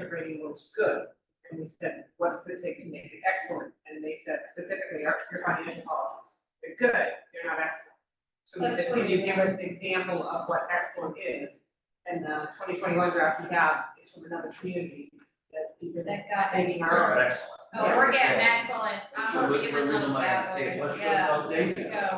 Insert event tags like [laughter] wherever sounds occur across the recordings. the rating was good. And we said, what does it take to make it excellent? And they said specifically, our, your financial policies, they're good, they're not excellent. So we That's said, can you what- give us an example of what excellent is? And the twenty twenty-one draft we have is from another community that we were That got thinking excellent. our. Excellent. Oh, we're getting excellent, We're- I'm giving we're those leaving money on bad the table. boys, Let's yeah, go. let's go.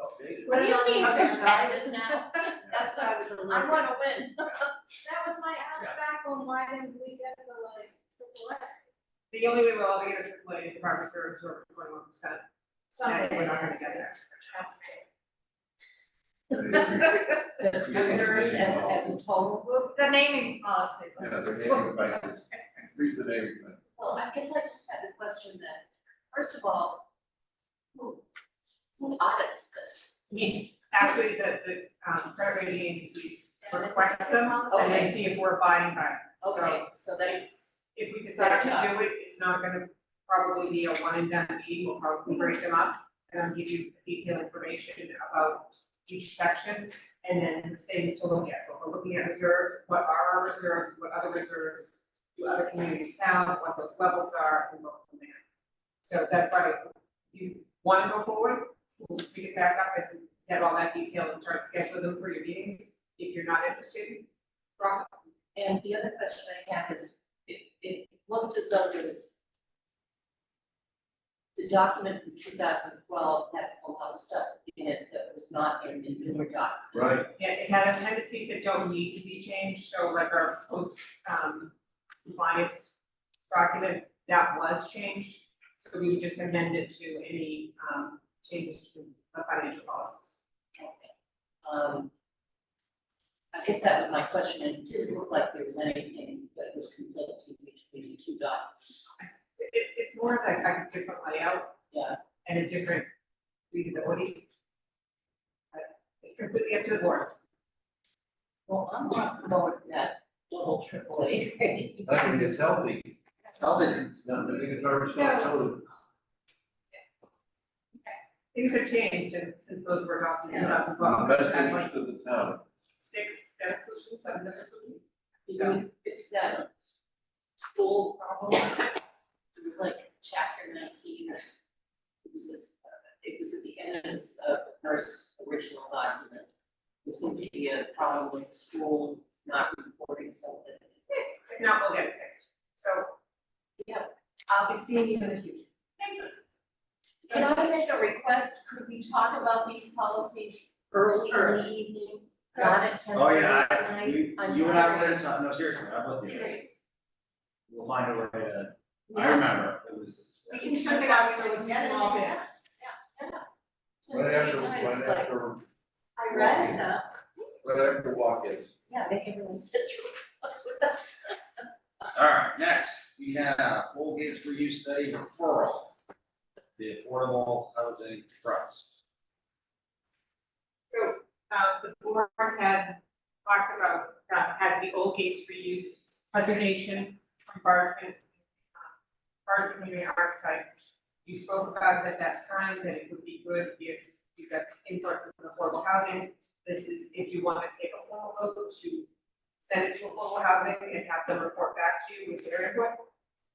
Updated. What do you mean, Okay. competitive now? [laughs] That's what I was a little. I'm gonna win. That was my ask back on why didn't we get the like, triple A, The only way we'll all get a triple A is the farmer's service were twenty-one percent, and something. we're not gonna get there. Reserves as, as a total group? [laughs] The naming policy. Yeah, they're naming devices. Freeze the name. Well, I guess I just had a question that, first of all, who, who audits this? I mean, Actually, the, the, um, credit rating agencies request them, and they Okay. see if we're abiding by it. So okay, so that's, If we decide to do it, it's not gonna probably be a one and done meeting, we'll probably break them up, and I'll give you detailed information about each section, and then things to look at, so we're looking at reserves, what are our reserves, what other reserves do other communities have, what those levels are, and what from there. So that's why you wanna go forward, we'll pick it back up and get all that detail and start scheduling them for your meetings, if you're not interested, drop it. and the other question I have is, it, it looked as though there was the document from two thousand twelve had a lot of stuff in it that was not in the newer doc. Right. Yeah, it had appendices that don't need to be changed, so like our post, um, compliance document, that was changed. So we would just amend it to any, um, changes to the financial policies. Um, I guess that was my question, and it didn't look like there was anything that was conflicting between the two documents. It, it's more of like a different layout. Yeah. And a different readability. But it's completely up to the board. Well, I'm not going with that double triple A. [laughs] I think it's healthy. Healthy, it's not, I think it's our responsibility. Things have changed and since those were adopted in Yes. 2012, Best I'd like interest of the town. six, seven solutions, seven different solutions. Did we fix that school problem? It was like chapter nineteen or s- it was this, uh, it was at the end of this, uh, the first original document. It was in the uh, problem with school not reporting something. [laughs] If not, we'll get it fixed. So Yeah, I'll be seeing you in the future. thank you. Can Can I make a request? Could we talk about these policies early in in the the evening, not not at ten Oh, yeah, o'clock I, we, you and I were in something, no, seriously, I'm with you. We'll find a way to, I remember, it was. We can chunk it out so it's Yeah. small bits. Right after, right after, I read it, uh, right after walk-ins. yeah, make everyone sit through. Alright, next, we have full gates for you study referral, the affordable housing trust. So, uh, the board had talked about, uh, had the old gates reuse preservation from Barfin. Barfin community archetype. You spoke about it at that time, that it would be good if you got input from affordable housing. This is if you want to take a formal vote to send it to affordable housing and have them report back to you with their input.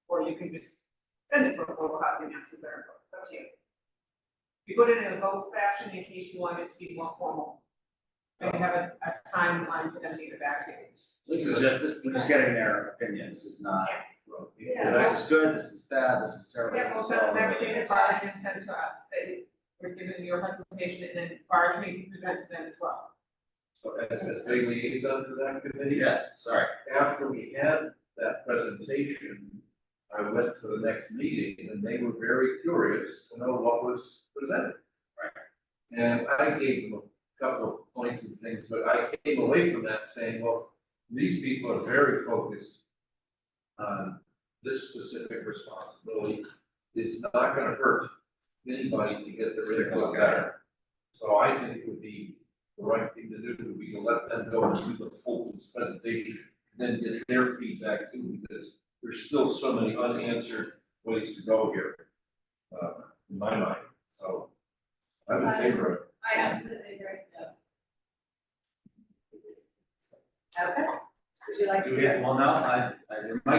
Or you can just send it to affordable housing and see their input, It's up to you. We put it in a vote fashion in case you want it to be more formal. And we have a, a timeline for them to get back to you. This is just, this- we're just getting their opinion, this is not, Yeah. this is good, this is bad, this is terrible. Yeah, we'll this is all send everything good. that Barge has sent to us, that you- we're given your presentation, and then Barge may present to them as well. So as, as they liaison to that committee. Yes, sorry, After we had that presentation, I went to the next meeting and they were very curious to know what was presented. Right. And Um, I gave them a couple of points and things, but I came away from that saying, well, these people are very focused on this specific responsibility. It's not gonna hurt anybody to get their input better. So I think it would be the right thing to do, would be to let them go and do the full presentation, then get their feedback too, because there's still so many unanswered ways to go here, uh, in my mind, so. I'm in favor of it. I completely agree. Okay, Would you like to? Do we have, well, no, I, I, there might